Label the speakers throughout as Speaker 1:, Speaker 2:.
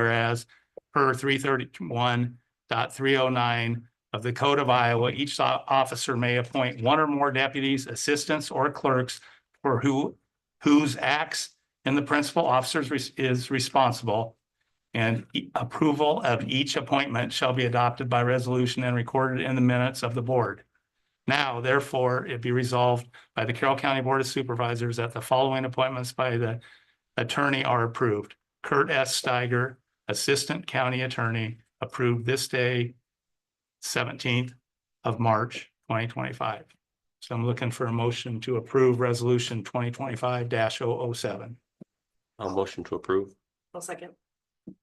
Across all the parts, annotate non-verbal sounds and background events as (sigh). Speaker 1: Whereas per three thirty-one dot three oh nine of the Code of Iowa, each o- officer may appoint one or more deputies, assistants, or clerks for who, whose acts and the principal officer is res- is responsible. And e- approval of each appointment shall be adopted by resolution and recorded in the minutes of the board. Now, therefore, it be resolved by the Carroll County Board of Supervisors that the following appointments by the attorney are approved. Kurt S. Steiger, Assistant County Attorney, approved this day, seventeenth of March, twenty twenty-five. So I'm looking for a motion to approve resolution twenty twenty-five oh 7
Speaker 2: I'll motion to approve.
Speaker 3: I'll second.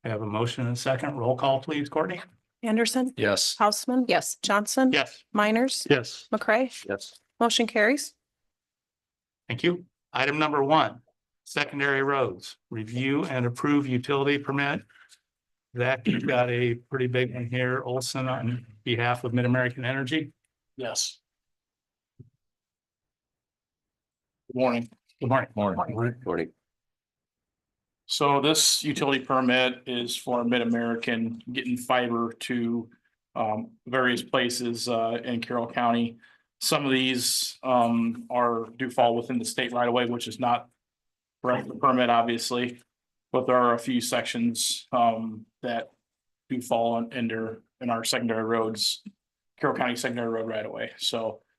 Speaker 1: I have a motion and a second. Roll call, please, Courtney.
Speaker 4: Anderson,
Speaker 2: Yes.
Speaker 4: Houseman. Yes. Johnson.
Speaker 1: Yes.
Speaker 4: Miners,
Speaker 1: Yes.
Speaker 4: McCray,
Speaker 2: Yes.
Speaker 4: motion carries.
Speaker 1: Thank you. Item number one, secondary roads, review and approve utility permit. Zach, you've got a pretty big one here, Olson on behalf of Mid-American Energy.
Speaker 5: Yes. Good Morning.
Speaker 1: Good morning.
Speaker 5: Morning.
Speaker 2: Morning.
Speaker 5: So this utility permit is for Mid-American getting fiber to um various places uh in Carroll County. Some of these um are do fall within the state right away, which is not right the permit, obviously. But there are a few sections um that do fall in- under in our secondary roads, Carroll County secondary road right away, so. (clears throat)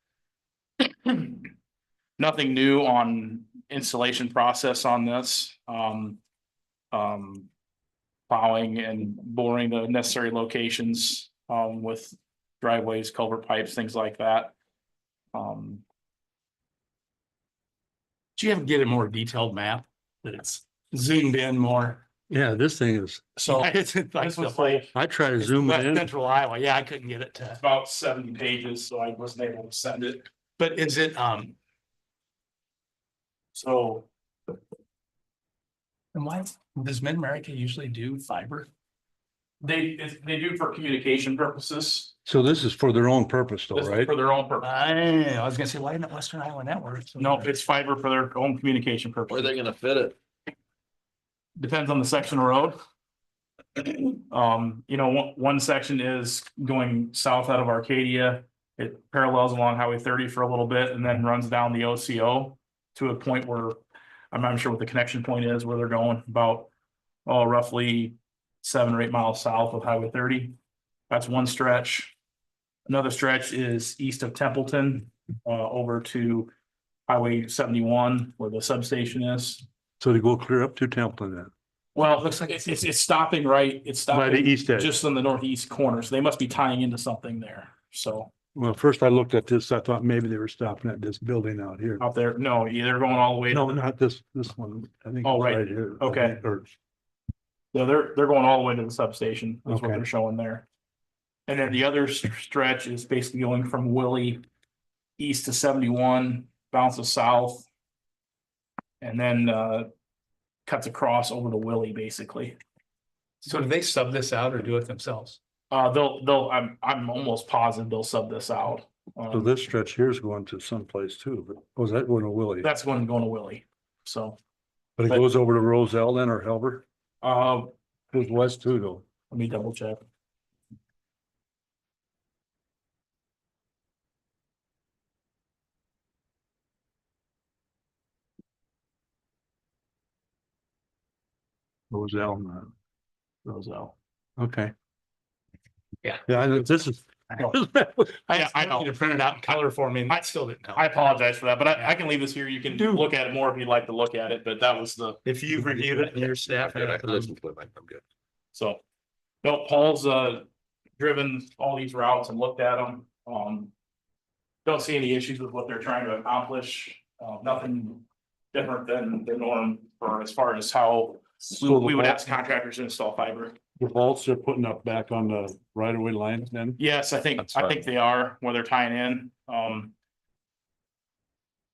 Speaker 5: Nothing new on installation process on this. Um, um, plowing and boring the necessary locations, um, with driveways, culvert pipes, things like that. Um,
Speaker 1: Do you have to get a more detailed map that's zoomed in more?
Speaker 6: Yeah, this thing is,
Speaker 5: so
Speaker 1: It's like
Speaker 5: this was
Speaker 1: the
Speaker 5: like
Speaker 6: I try to zoom it
Speaker 1: West
Speaker 6: in.
Speaker 1: Central Iowa. Yeah, I couldn't get it to,
Speaker 5: about seventy pages, so I wasn't able to send it.
Speaker 1: but is it, um,
Speaker 5: So
Speaker 1: and why, does Mid-America usually do fiber?
Speaker 5: they, it's- they do for communication purposes,
Speaker 6: So this is for their own purpose though,
Speaker 5: This is
Speaker 6: right?
Speaker 5: for their own purpose.
Speaker 1: I, I was gonna say, why isn't it Western Iowa Network?
Speaker 5: No, it's fiber for their own communication purpose.
Speaker 2: gonna fit it?
Speaker 5: Depends on the section of road. Um, you know, one, one section is going south out of Arcadia. It parallels along Highway thirty for a little bit and then runs down the OCO to a point where I'm not sure what the connection point is, where they're going about, oh, roughly seven or eight miles south of Highway thirty. That's one stretch. Another stretch is east of Templeton, uh, over to Highway seventy-one where the substation is.
Speaker 6: So they go clear up to Templeton then,
Speaker 5: Well, it looks like it's, it's, it's stopping right, it's
Speaker 6: by the
Speaker 5: stopping
Speaker 6: east edge.
Speaker 5: Uh, just in the northeast corner, so they must be tying into something there. So
Speaker 6: Well, first I looked at this, I thought maybe they were stopping at this building out here.
Speaker 5: out there, no, yeah, they're going all the way,
Speaker 6: No, not this, this one. I think.
Speaker 5: Oh,
Speaker 6: it's
Speaker 5: right.
Speaker 6: here. I
Speaker 5: Okay.
Speaker 6: think, Or
Speaker 5: no, they're, they're going all the way to the substation, is what
Speaker 6: Okay.
Speaker 5: they're showing there. And then the other s- stretch is basically going from Willie east to seventy-one, bounces south. And then, uh, cuts across over to Willie, basically.
Speaker 1: So do they sub this out or do it themselves?
Speaker 5: Uh, they'll, they'll, I'm, I'm almost positive they'll sub this out.
Speaker 6: So
Speaker 5: Um,
Speaker 6: this stretch here is going to someplace too, but was that going to Willie?
Speaker 5: that's going, going to Willie, so.
Speaker 6: But it
Speaker 5: but-
Speaker 6: goes over to Roselle then or Helber?
Speaker 5: Uh,
Speaker 6: Goes west too though.
Speaker 5: let me double check.
Speaker 6: Roselle, not.
Speaker 5: Roselle.
Speaker 6: Okay.
Speaker 1: Yeah.
Speaker 6: Yeah, I know this is. (laughs)
Speaker 1: I
Speaker 5: Yeah,
Speaker 1: asked
Speaker 5: I
Speaker 1: Courtney to print it out in color for me and I still didn't know.
Speaker 5: I apologize for that, but I, I can leave this here. You can look at it more if you'd like to look at it, but that was the,
Speaker 1: If you've reviewed it and your staff. had
Speaker 2: I
Speaker 1: it,
Speaker 2: can listen to it, Mike, I'm good.
Speaker 5: so. No, Paul's, uh, driven all these routes and looked at them, um. Don't see any issues with what they're trying to accomplish, uh, nothing different than the norm for as far as how we
Speaker 6: So the
Speaker 5: we would
Speaker 6: vaults-
Speaker 5: ask contractors to install fiber.
Speaker 6: The vaults they're putting up back on the right of way line then?
Speaker 5: Yes, I think,
Speaker 2: That's
Speaker 5: I
Speaker 2: fine.
Speaker 5: think they are, where they're tying in, um.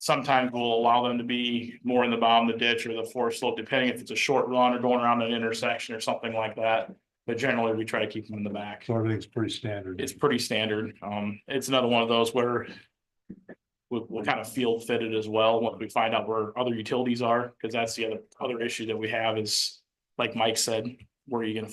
Speaker 5: Sometimes we'll allow them to be more in the bottom of the ditch or the forest slope, depending if it's a short run or going around an intersection or something like that. But generally, we try to keep them in the back.
Speaker 6: So everything's pretty standard.
Speaker 5: It's pretty standard. Um, it's another one of those where. We'll, we'll kind of field fit it as well, once we find out where other utilities are, because that's the other, other issue that we have is, like Mike said, where are you gonna